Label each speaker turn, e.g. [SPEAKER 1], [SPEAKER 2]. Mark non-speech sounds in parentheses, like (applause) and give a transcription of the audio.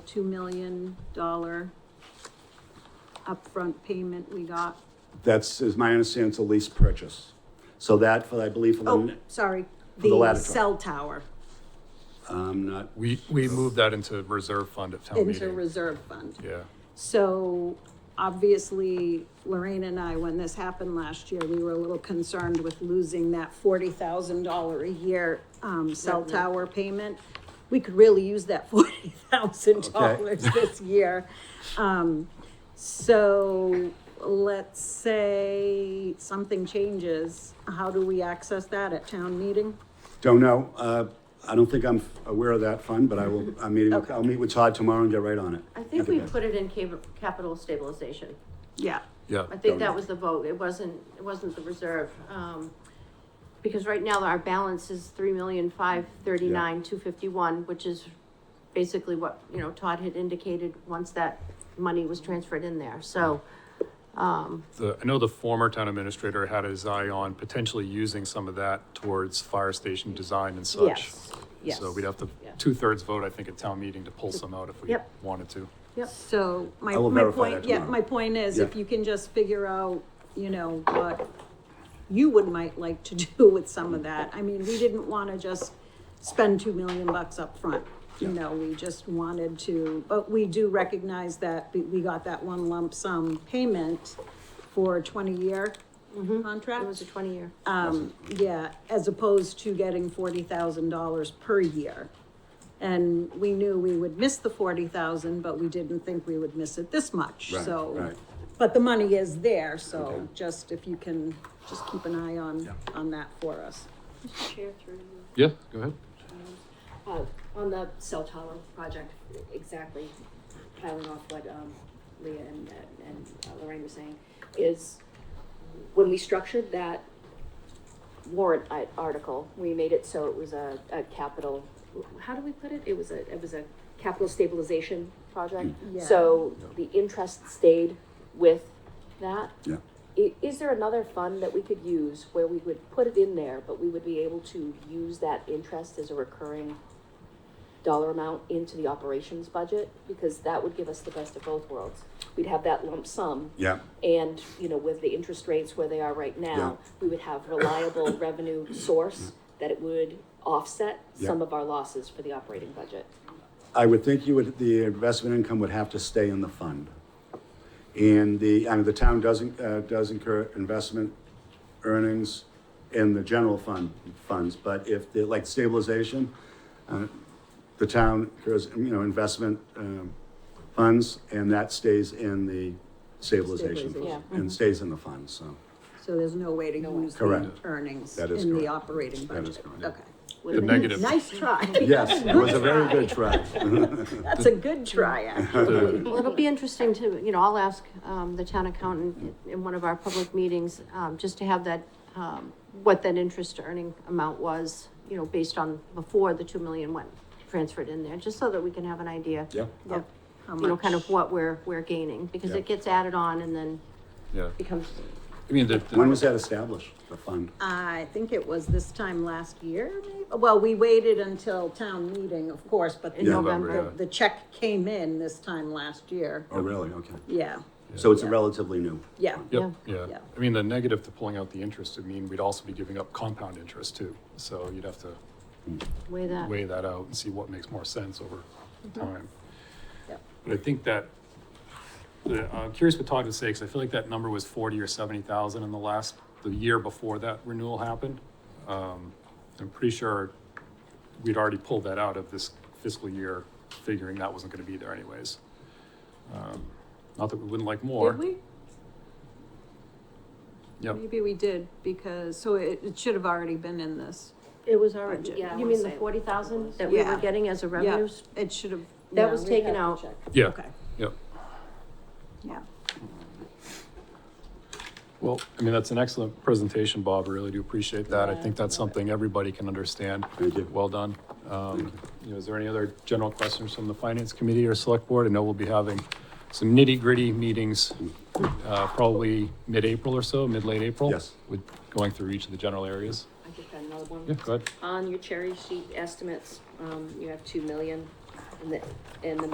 [SPEAKER 1] two million dollar upfront payment we got.
[SPEAKER 2] That's, is my understanding, it's a lease purchase. So that, for I believe, for
[SPEAKER 1] Oh,
[SPEAKER 2] the,
[SPEAKER 1] sorry,
[SPEAKER 2] the
[SPEAKER 1] the
[SPEAKER 2] ladder truck.
[SPEAKER 1] cell tower
[SPEAKER 2] I'm not,
[SPEAKER 3] We, we moved that into reserve fund at
[SPEAKER 2] Oh,
[SPEAKER 3] town
[SPEAKER 1] into
[SPEAKER 3] meeting.
[SPEAKER 1] reserve fund.
[SPEAKER 3] Yeah,
[SPEAKER 1] So obviously, Lorraine and I, when this happened last year, we were a little concerned with losing that forty thousand dollar a year um cell tower payment. We could really use that (laughs) forty thousand dollars this year. Um, so let's say something changes, how do we access that at town meeting?
[SPEAKER 2] don't know. Uh, I don't think I'm aware of that fund, but I will, I'm meeting, with- I'll meet with Todd tomorrow and get right on it.
[SPEAKER 4] I think we put it in cap- capital stabilization.
[SPEAKER 1] Yeah.
[SPEAKER 3] yeah.
[SPEAKER 4] I think that was the vote. It wasn't, it wasn't the reserve. Um, because right now our balance is three million, five thirty-nine, two fifty-one, which is basically what, you know, Todd had indicated once that money was transferred in there. So,
[SPEAKER 3] The, I know the former town administrator had his eye on potentially using some of that towards fire station design and such.
[SPEAKER 1] Yes, yes.
[SPEAKER 3] So we'd have to,
[SPEAKER 4] Yeah.
[SPEAKER 3] two-thirds vote, I think, at town meeting to pull some out if we
[SPEAKER 4] Yep.
[SPEAKER 3] wanted to.
[SPEAKER 4] yep,
[SPEAKER 1] So my,
[SPEAKER 2] I will
[SPEAKER 1] my
[SPEAKER 2] verify
[SPEAKER 1] point,
[SPEAKER 2] that
[SPEAKER 1] yeah,
[SPEAKER 2] tomorrow.
[SPEAKER 1] my point is if
[SPEAKER 2] Yeah.
[SPEAKER 1] you can just figure out, you know, what you would might like to (laughs) do with some of that. I mean, we didn't wanna just spend two million bucks up front. You
[SPEAKER 2] Yeah.
[SPEAKER 1] know, we just wanted to, but we do recognize that we, we got that one lump sum payment for a twenty-year contract.
[SPEAKER 4] Mm-hmm. it was a twenty-year.
[SPEAKER 1] Um, yeah, as opposed to getting forty thousand dollars per year. And we knew we would miss the forty thousand, but we didn't think we would miss it this much,
[SPEAKER 2] Right,
[SPEAKER 1] so.
[SPEAKER 2] right.
[SPEAKER 1] But the money is there, so
[SPEAKER 2] Okay.
[SPEAKER 1] just if you can, just keep an eye on,
[SPEAKER 2] Yeah.
[SPEAKER 1] on that for us.
[SPEAKER 5] Chair through you.
[SPEAKER 3] Yeah, go ahead.
[SPEAKER 5] Uh, on the cell tower project, exactly, piling off what, um, Leah and, and uh, Lorraine were saying, is when we structured that warrant i- article, we made it so it was a, a capital, how do we put it? It was a, it was a capital stabilization project.
[SPEAKER 1] Yeah.
[SPEAKER 5] So the interest stayed with that.
[SPEAKER 2] Yeah.
[SPEAKER 5] I- is there another fund that we could use where we would put it in there, but we would be able to use that interest as a recurring dollar amount into the operations budget? Because that would give us the best of both worlds. We'd have that lump sum.
[SPEAKER 2] Yeah,
[SPEAKER 5] And, you know, with the interest rates where they are right now, we would have
[SPEAKER 2] (coughs)
[SPEAKER 5] reliable revenue source that it would offset some
[SPEAKER 2] Yeah.
[SPEAKER 5] of our losses for the operating budget.
[SPEAKER 2] I would think you would, the investment income would have to stay in the fund. And the, I mean, the town doesn't, uh, does incur investment earnings in the general fund, funds, but if, the like stabilization, uh, the town incurs, you know, investment, um, funds, and that stays in the stabilization.
[SPEAKER 1] Stabilization.
[SPEAKER 5] Yeah.
[SPEAKER 2] And stays in the fund, (laughs) so
[SPEAKER 1] So there's no way to use the
[SPEAKER 2] Correct.
[SPEAKER 1] earnings
[SPEAKER 2] That is
[SPEAKER 1] in the
[SPEAKER 2] correct.
[SPEAKER 1] operating
[SPEAKER 2] That is
[SPEAKER 1] budget.
[SPEAKER 2] correct.
[SPEAKER 1] Okay,
[SPEAKER 3] The negative,
[SPEAKER 1] nice
[SPEAKER 2] (laughs)
[SPEAKER 1] try.
[SPEAKER 2] Yes, it was a very good try. (laughs)
[SPEAKER 1] That's a good try, actually.
[SPEAKER 3] the,
[SPEAKER 4] Well, it'll be interesting to, you know, I'll ask, um, the town accountant in one of our public meetings, um, just to have that, um, what that interest earning amount was, you know, based on before the two million went transferred in there, just so that we can have an idea.
[SPEAKER 2] Yeah.
[SPEAKER 1] Yep. How
[SPEAKER 4] You know, kind
[SPEAKER 1] much?
[SPEAKER 4] of what we're, we're gaining, because
[SPEAKER 2] Yeah.
[SPEAKER 4] it gets added on and then
[SPEAKER 3] yeah.
[SPEAKER 4] becomes,
[SPEAKER 3] I mean, the, the-
[SPEAKER 2] When was that established, the fund?
[SPEAKER 1] Uh, I think it was this time last year, maybe? Well, we waited until town meeting, of course, but the
[SPEAKER 4] in
[SPEAKER 2] Yeah.
[SPEAKER 4] November.
[SPEAKER 1] The- The check came in this time last year.
[SPEAKER 2] Oh, really? Okay.
[SPEAKER 1] Yeah,
[SPEAKER 2] So it's
[SPEAKER 1] Yeah.
[SPEAKER 2] relatively new.
[SPEAKER 1] yeah,
[SPEAKER 3] Yep,
[SPEAKER 4] Yeah.
[SPEAKER 3] yeah.
[SPEAKER 1] Yeah.
[SPEAKER 3] I mean, the negative to pulling out the interest, I mean, we'd also be giving up compound interest too. So you'd have to
[SPEAKER 4] Way that.
[SPEAKER 3] weigh that out and see what makes more sense over
[SPEAKER 1] Mm-hmm.
[SPEAKER 3] time.
[SPEAKER 1] yeah.
[SPEAKER 3] But I think that, the- I'm curious what Todd would say, because I feel like that number was forty or seventy thousand in the last, the year before that renewal happened. Um, I'm pretty sure we'd already pulled that out of this fiscal year, figuring that wasn't gonna be there anyways. Um, Not that we wouldn't like more.
[SPEAKER 1] Did we?
[SPEAKER 3] Yep.
[SPEAKER 1] Maybe we did because, so it, it should have already been in this.
[SPEAKER 4] It was already, you
[SPEAKER 5] Yeah, I wanna
[SPEAKER 4] mean the
[SPEAKER 5] say-
[SPEAKER 4] forty thousand that we
[SPEAKER 1] Yeah.
[SPEAKER 4] were getting as a revenue? s-
[SPEAKER 1] Yeah, It should have.
[SPEAKER 4] That
[SPEAKER 1] yeah,
[SPEAKER 4] was
[SPEAKER 1] we'd have
[SPEAKER 4] taken
[SPEAKER 1] to
[SPEAKER 4] out.
[SPEAKER 1] check.
[SPEAKER 3] Yeah,
[SPEAKER 1] Okay,
[SPEAKER 3] yep.
[SPEAKER 1] yeah.
[SPEAKER 3] Well, I mean, that's an excellent presentation, Bob. I really do appreciate that. I think that's something everybody can understand.
[SPEAKER 2] Thank you.
[SPEAKER 3] Well done. Um, you know, is there any other general questions from the finance committee or select board? I know we'll be having some nitty gritty meetings, uh, probably mid-April or so, mid-late April.
[SPEAKER 2] Yes.
[SPEAKER 3] With going through each of the general areas.
[SPEAKER 5] I just got another one.
[SPEAKER 3] Yeah, go ahead.
[SPEAKER 5] On your cherry sheet estimates, um, you have two million in the, in the